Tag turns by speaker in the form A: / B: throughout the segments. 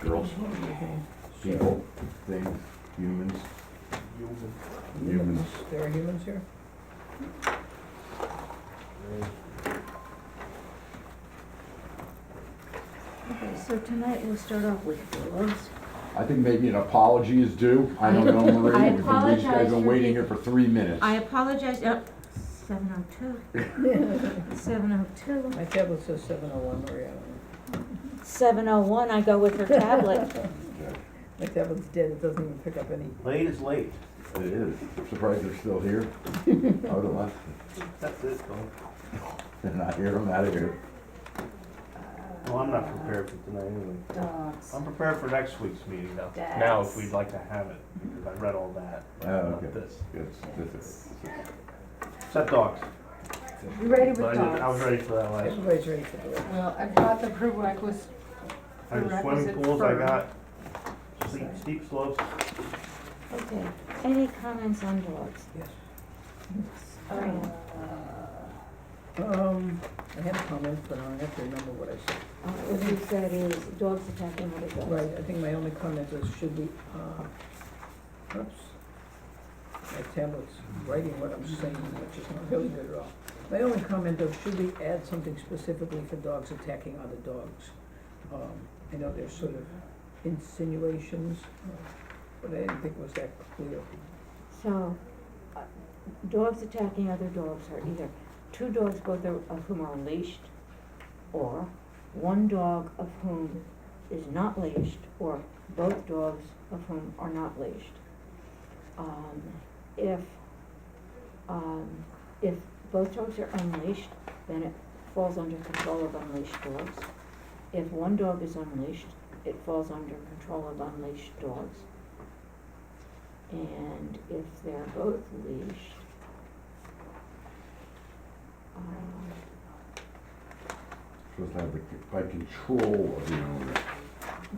A: girls, people, things, humans, humans.
B: There are humans here?
C: Okay, so tonight we'll start off with Willows.
A: I think maybe an apology is due. I don't know, Marie,
C: I
A: we've been, these guys
C: apologize
A: been
C: for
A: waiting
C: the-
A: here for three minutes.
C: I apologize, oh, seven oh two. Seven oh two.
B: My tablet says seven oh one, Maria.
C: Seven oh one, I go with her tablet.
B: My tablet's dead, it doesn't even pick up any.
D: Late is late.
A: It is. Surprised they're still here. I would've left.
D: That's it, though.
A: They're not here, I'm out of here.
D: Well, I'm not prepared for tonight anyway.
E: Dogs.
D: I'm prepared for next week's meeting though. Now, if we'd like to have it, because I read all that.
A: Oh,
D: about
A: okay.
D: this.
A: That's, that's it.
D: Except dogs.
E: You ready
D: But I
E: with
D: did- I was
E: dogs?
D: ready for that last.
B: Everybody's ready for the door.
E: Well, I brought the prerequisites.
D: I was swimming
E: Prerequisite
D: pools, I
E: for-
D: got steep, steep slopes.
C: Okay, any comments on dogs?
B: Yes.
C: Fran,
B: Um, I had a comment, but I don't have to remember what I said.
C: uh, what you said is dogs attacking other dogs.
B: Right, I think my only comment is should we, uh, oops. My tablet's writing what I'm saying, which is not really good at all. My only comment of should we add something specifically for dogs attacking other dogs? Um, I know there's sort of insinuations, uh, but I didn't think it was that clear.
C: So, uh, dogs attacking other dogs are either two dogs, both are- of whom are leashed, or one dog of whom is not leashed, or both dogs of whom are not leashed. Um, if, um, if both dogs are unleashed, then it falls under control of unleashed dogs. If one dog is unleashed, it falls under control of unleashed dogs. And if they're both leashed, um,
A: Supposed to have the, by control of the owner.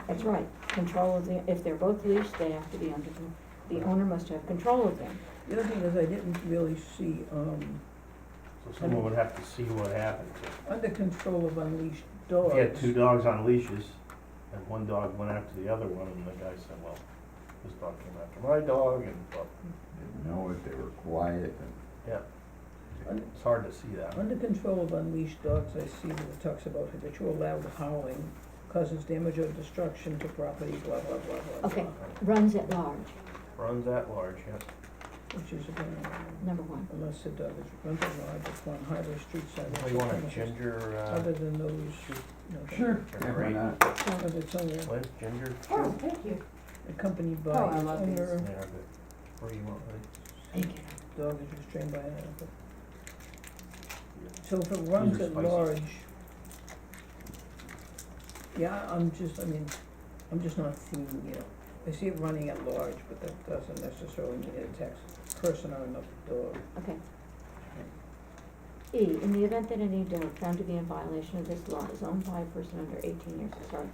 C: that's right, control of the, if they're both leashed, they have to be under, con- the owner must have control of them.
B: The other thing is I didn't really see, um,
D: So someone would have to see what happened.
B: under control of unleashed
D: If
B: dogs.
E: Oh.
D: you had two dogs on leashes and one dog went after the other one and the guy said, well, this dog came after my dog and, well,
A: Didn't know it, they were quiet and.
D: it's hard to see that.
B: Under control of unleashed dogs, I see that it talks about habitual loud howling causes damage or destruction to property, blah, blah, blah, blah, blah.
C: Okay. Runs at large,
D: Runs at large, yeah.
B: Which is, again,
C: number one.
B: unless the dog is run at large upon highway, street sidewalk.
D: Anybody Oh, want a
B: premises,
D: ginger, uh,
B: Other than those, no, thank you.
A: Yeah, why not?
B: Other than its owner,
D: Liz, ginger?
E: Oh, thank you.
B: accompanied by
E: Oh, I
B: its
E: love these.
B: owner,
D: Yeah, but, or you want, like,
C: Thank you.
B: dog is restrained by an animal.
D: Yeah.
B: So if it runs
D: are
B: at
D: spicy.
B: large, yeah, I'm just, I mean, I'm just not seeing, you know, I see it running at large, but that doesn't necessarily mean it attacks a person or another dog.
C: Okay. E, in the event that any dog found to be in violation of this law is owned by a person under eighteen years, sorry,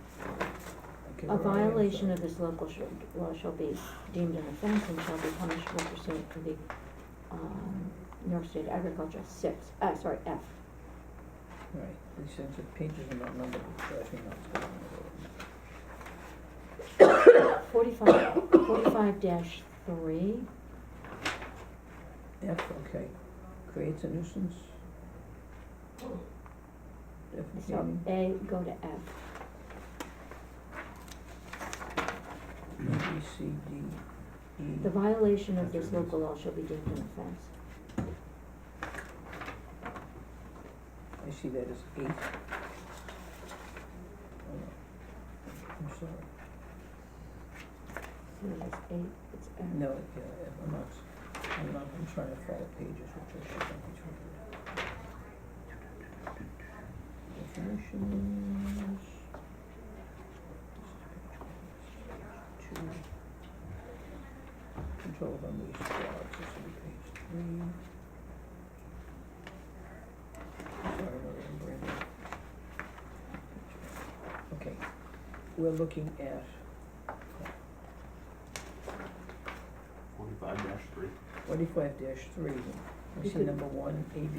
B: Okay,
C: A
B: we're already
C: violation
B: inside.
C: of this local sh- law shall be deemed an offense and shall be punishable pursuant to the, um, New York State Agriculture, six, uh, sorry, F.
B: Right, these things are pages and not numbered, it drives me nuts. I don't know.
C: Forty-five, forty-five dash three,
B: F, okay, creates a nuisance.
C: so
B: Defecating,
C: A, go to F.
B: B, C, D, E.
C: The violation of this local law shall be deemed an offense.
B: I see that as eight. Oh, I'm sorry.
C: So it's eight, it's F.
B: No, yeah, I'm not, I'm not, I'm trying to follow pages, which I should not be trying to do. Definitions. Two. Control of unleashed dogs, this will be page three. Sorry, Maria, I'm brain dead. Okay, we're looking at,
D: forty-five dash three.
B: Forty-five dash three, I
C: You
B: see
C: could-
B: number one, A, B,